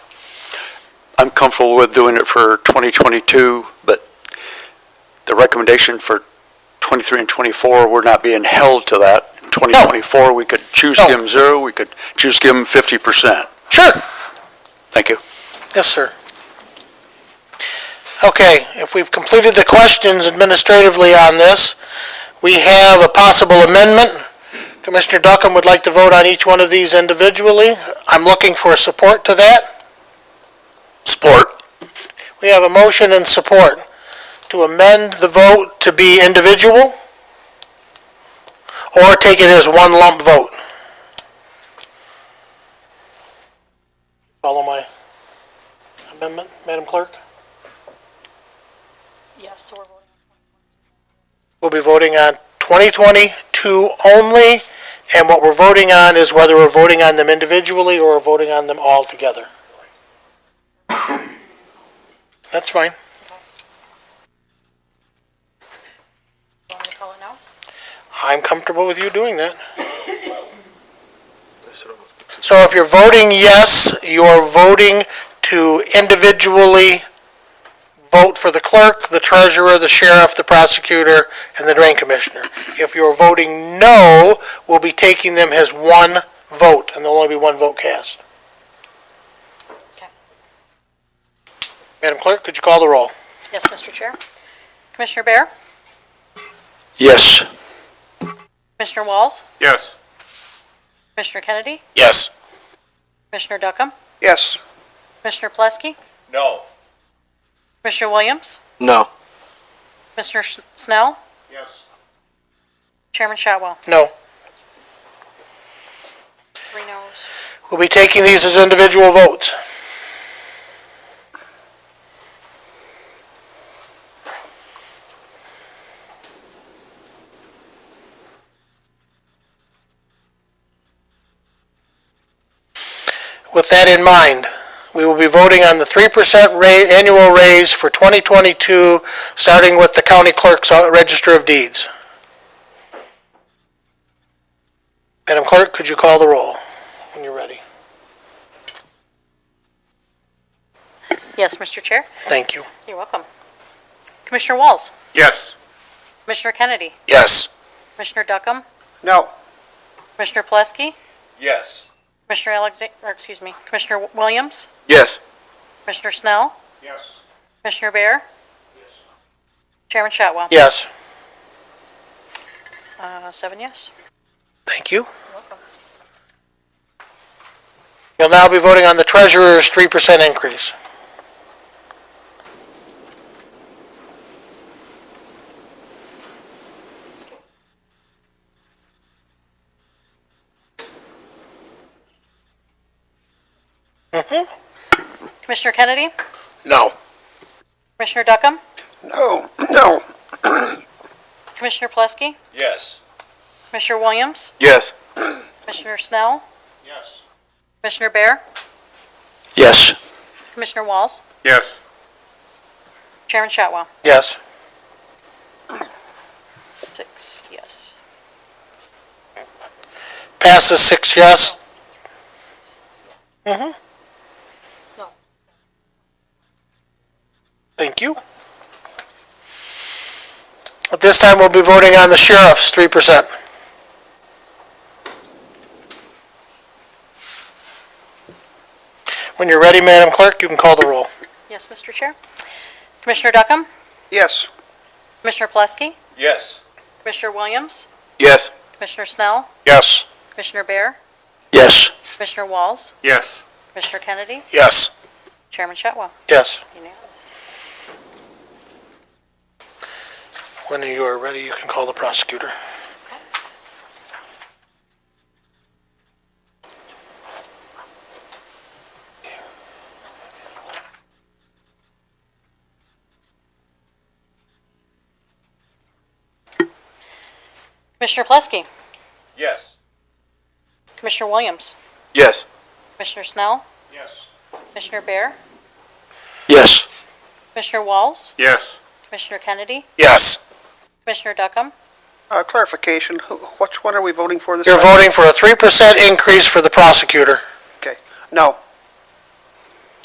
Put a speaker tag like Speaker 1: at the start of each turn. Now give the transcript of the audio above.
Speaker 1: I'm comfortable with doing it for 2022, but the recommendation for 23 and 24, we're not being held to that. In 2024, we could choose to give them zero, we could choose to give them 50%.
Speaker 2: Sure.
Speaker 1: Thank you.
Speaker 2: Yes, sir. Okay, if we've completed the questions administratively on this, we have a possible amendment. Commissioner Duckham would like to vote on each one of these individually. I'm looking for support to that.
Speaker 1: Support.
Speaker 2: We have a motion and support to amend the vote to be individual or take it as one lump vote. Follow my amendment, Madam Clerk?
Speaker 3: Yes, so we're voting.
Speaker 2: We'll be voting on 2022 only, and what we're voting on is whether we're voting on them individually or we're voting on them all together. That's fine.
Speaker 3: Do you want me to call it now?
Speaker 2: I'm comfortable with you doing that. So if you're voting yes, you're voting to individually vote for the clerk, the treasurer, the sheriff, the prosecutor, and the drain commissioner. If you're voting no, we'll be taking them as one vote, and there'll only be one vote cast.
Speaker 3: Okay.
Speaker 2: Madam Clerk, could you call the roll?
Speaker 3: Yes, Mr. Chair. Commissioner Bear?
Speaker 1: Yes.
Speaker 3: Commissioner Walls?
Speaker 4: Yes.
Speaker 3: Commissioner Kennedy?
Speaker 4: Yes.
Speaker 3: Commissioner Duckham?
Speaker 4: Yes.
Speaker 3: Commissioner Plesky?
Speaker 4: No.
Speaker 3: Commissioner Williams?
Speaker 5: No.
Speaker 3: Commissioner S- Snell?
Speaker 4: Yes.
Speaker 3: Chairman Shotwell?
Speaker 2: No.
Speaker 3: Three noes.
Speaker 2: We'll be taking these as individual votes. With that in mind, we will be voting on the 3% ra- annual raise for 2022, starting with the county clerk's uh, register of deeds. Madam Clerk, could you call the roll when you're ready?
Speaker 3: Yes, Mr. Chair.
Speaker 2: Thank you.
Speaker 3: You're welcome. Commissioner Walls?
Speaker 4: Yes.
Speaker 3: Commissioner Kennedy?
Speaker 5: Yes.
Speaker 3: Commissioner Duckham?
Speaker 4: No.
Speaker 3: Commissioner Plesky?
Speaker 4: Yes.
Speaker 3: Commissioner Alexa, or excuse me, Commissioner W- Williams?
Speaker 5: Yes.
Speaker 3: Commissioner Snell?
Speaker 4: Yes.
Speaker 3: Commissioner Bear?
Speaker 4: Yes.
Speaker 3: Chairman Shotwell?
Speaker 2: Yes.
Speaker 3: Uh, seven yes.
Speaker 2: Thank you. You'll now be voting on the treasurer's 3% increase.
Speaker 3: Commissioner Kennedy?
Speaker 5: No.
Speaker 3: Commissioner Duckham?
Speaker 4: No. No.
Speaker 3: Commissioner Plesky?
Speaker 4: Yes.
Speaker 3: Commissioner Williams?
Speaker 5: Yes.
Speaker 3: Commissioner Snell?
Speaker 4: Yes.
Speaker 3: Commissioner Bear?
Speaker 1: Yes.
Speaker 3: Commissioner Walls?
Speaker 4: Yes.
Speaker 3: Chairman Shotwell?
Speaker 2: Yes.
Speaker 3: Six, yes.
Speaker 2: Passes six yes. Mm-hmm.
Speaker 3: No.
Speaker 2: Thank you. At this time, we'll be voting on the sheriff's 3%. When you're ready, Madam Clerk, you can call the roll.
Speaker 3: Yes, Mr. Chair. Commissioner Duckham?
Speaker 4: Yes.
Speaker 3: Commissioner Plesky?
Speaker 4: Yes.
Speaker 3: Commissioner Williams?
Speaker 5: Yes.
Speaker 3: Commissioner Snell?
Speaker 4: Yes.
Speaker 3: Commissioner Bear?
Speaker 1: Yes.
Speaker 3: Commissioner Walls?
Speaker 4: Yes.
Speaker 3: Commissioner Kennedy?
Speaker 5: Yes.
Speaker 3: Chairman Shotwell?
Speaker 2: Yes.
Speaker 3: Unanimous.
Speaker 2: When you are ready, you can call the prosecutor.
Speaker 3: Commissioner Plesky?
Speaker 4: Yes.
Speaker 3: Commissioner Williams?
Speaker 5: Yes.
Speaker 3: Commissioner Snell?
Speaker 4: Yes.
Speaker 3: Commissioner Bear?
Speaker 1: Yes.
Speaker 3: Commissioner Walls?
Speaker 4: Yes.
Speaker 3: Commissioner Kennedy?
Speaker 5: Yes.
Speaker 3: Commissioner Duckham?
Speaker 6: Uh, Clarification, who- which one are we voting for this
Speaker 2: You're
Speaker 6: time?
Speaker 2: voting for a 3% increase for the prosecutor.
Speaker 6: Okay, no.